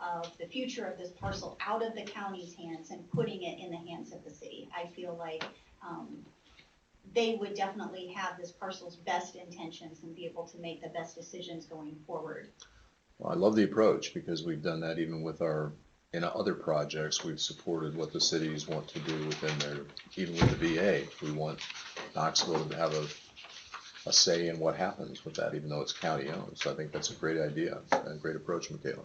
of the future of this parcel out of the county's hands and putting it in the hands of the city. I feel like, um, they would definitely have this parcel's best intentions and be able to make the best decisions going forward. Well, I love the approach because we've done that even with our, in other projects, we've supported what the cities want to do within their, even with the VA. We want Knoxville to have a, a say in what happens with that, even though it's county owned. So I think that's a great idea and a great approach, Michaela.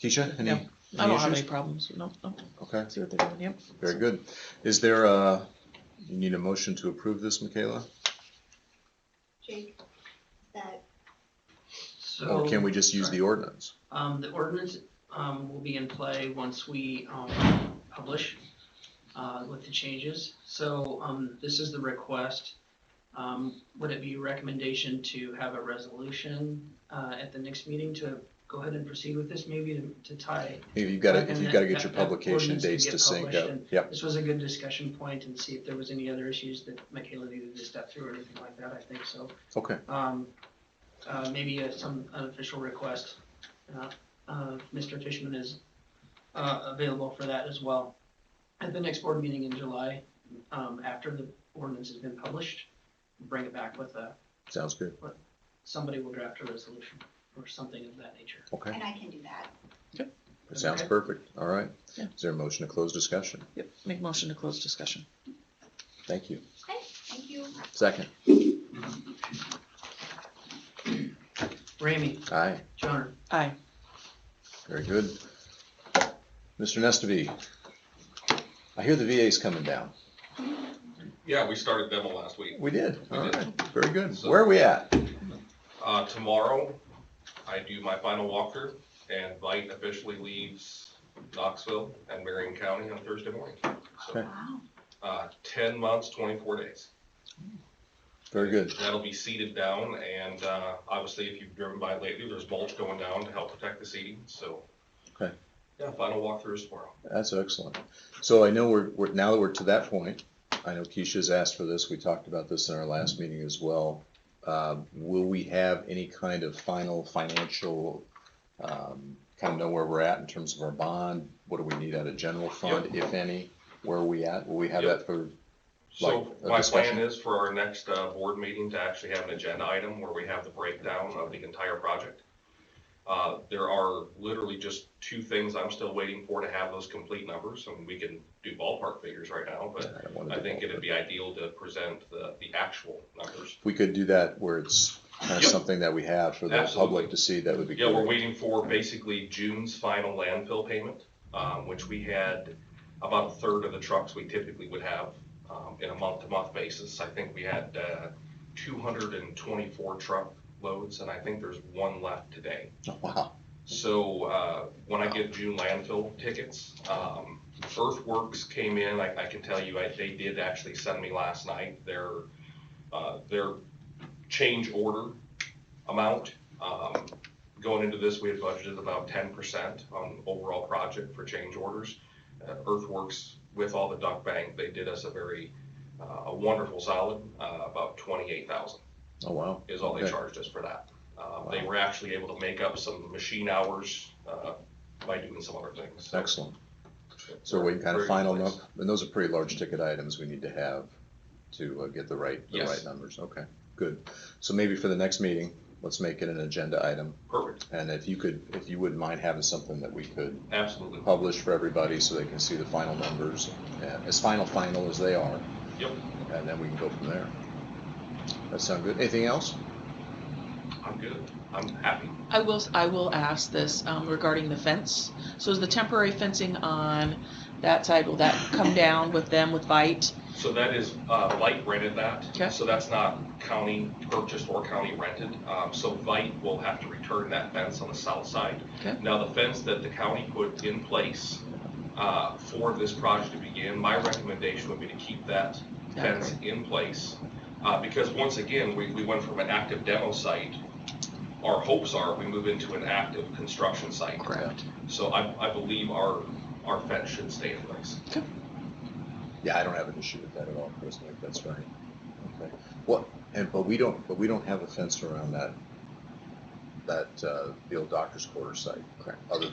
Keisha, any? No, I any don't have issues? any problems. No, no. Okay, See what they're doing. Yep. very good. Is there a, you need a motion to approve this, Michaela? Jake, is that, Or can So, we just use the ordinance? um, the ordinance, um, will be in play once we, um, publish, uh, with the changes. So, um, this is the request. Um, would it be your recommendation to have a resolution, uh, at the next meeting to go ahead and proceed with this, maybe to, to tie? If You've got to, And if you've got to that- get your that- that publication ordinance to dates get to sync published up. and- Yep, This was a good discussion point and see if there was any other issues that Michaela needed to step through or anything like that, I think so. okay. um, uh, maybe uh, some unofficial request. Uh, uh, Mr. Fishman is, uh, available for that as well. At the next board meeting in July, um, after the ordinance has been published, bring it back with a, Sounds good. somebody will draft a resolution or something of that nature. Okay. and I can do that. That Sounds Okay. perfect. All right. Yeah. Is there a motion to close discussion? Yep. Make motion to close discussion. Thank you. Okay, thank you. Second. Ramey, Aye. Johnner, Aye. Very good. Mr. Nestavee, I hear the VA's coming down. Yeah, we started demo last week. We did. We All did. right. Very good. So- Where are we at? Uh, tomorrow, I do my final walkthrough and Vite officially leaves Knoxville and Marion County on Thursday morning. So, Okay. Wow. uh, ten months, twenty-four days. Very good. That'll be seeded down and, uh, obviously if you've driven by lately, there's mulch going down to help protect the seeding, so. Okay. Yeah, final walkthrough is tomorrow. That's excellent. So I know we're, we're, now that we're to that point, I know Keisha's asked for this. We talked about this in our last Mm-hmm. meeting as well. Uh, will we have any kind of final financial, um, kind of know where we're at in terms of our bond? What do we need out of general fund, if any? Where are we at? Will we have Yep. that for So Like, a my discussion? plan is for our next, uh, board meeting to actually have an agenda item where we have the breakdown of the entire project. Uh, there are literally just two things I'm still waiting for to have those complete numbers, and we can do ballpark figures right now, but I don't wanna I do think that, it'd but be ideal to present the, the actual numbers. If we could do that where it's kind of Yep. something that we have for the Absolutely. public to see, that would be Yeah, we're good. waiting for basically June's final landfill payment, um, which we had about a third of the trucks we typically would have, um, in a month-to-month basis. I think we had, uh, two hundred and twenty-four truck loads, and I think there's one left today. Wow, So, uh, when I get June landfill tickets, um, Earthworks came in, I, I can tell you, I, they did actually send me last night their, uh, their change order amount. Um, going into this, we had budgeted about ten percent on overall project for change orders. Uh, Earthworks, with all the duck bank, they did us a very, uh, a wonderful solid, uh, about twenty-eight thousand oh, wow. is all they Okay. charged us for that. Um, They Wow. were actually able to make up some machine hours uh, by doing some other things. So- Excellent. So we're waiting kind Very of good final, place. nu- and those are pretty large ticket items we need to have to uh, get the right, the Yes. right numbers. Okay, good. So maybe for the next meeting, let's make it an agenda item. Perfect, And if you could, if you wouldn't mind having something that we could absolutely. publish for everybody so they can see the final numbers, uh, as final, final as they are. Yep. And then we can go from there. That sound good? Anything else? I'm good. I'm happy. I will, s- I will ask this um, regarding the fence. So is the temporary fencing on that side, will that come down with them with bite? So that is, uh, Vite rented that. Okay. So that's not county purchased or county rented. Um, So Vite will have to return that fence on the south side. Okay. Now, the fence that the county put in place uh, for this project to begin, my recommendation would be to keep that fence in place. Uh, because once again, we, we went from an active demo site, our hopes are we move into an active construction site. Correct. So I, I believe our, our fence should stay in place. Yeah, I don't have an issue with that at all, Chris, I think that's right. Okay. What, and, but we don't, but we don't have a fence around that, that, uh, the old doctor's quarter site. Correct. Other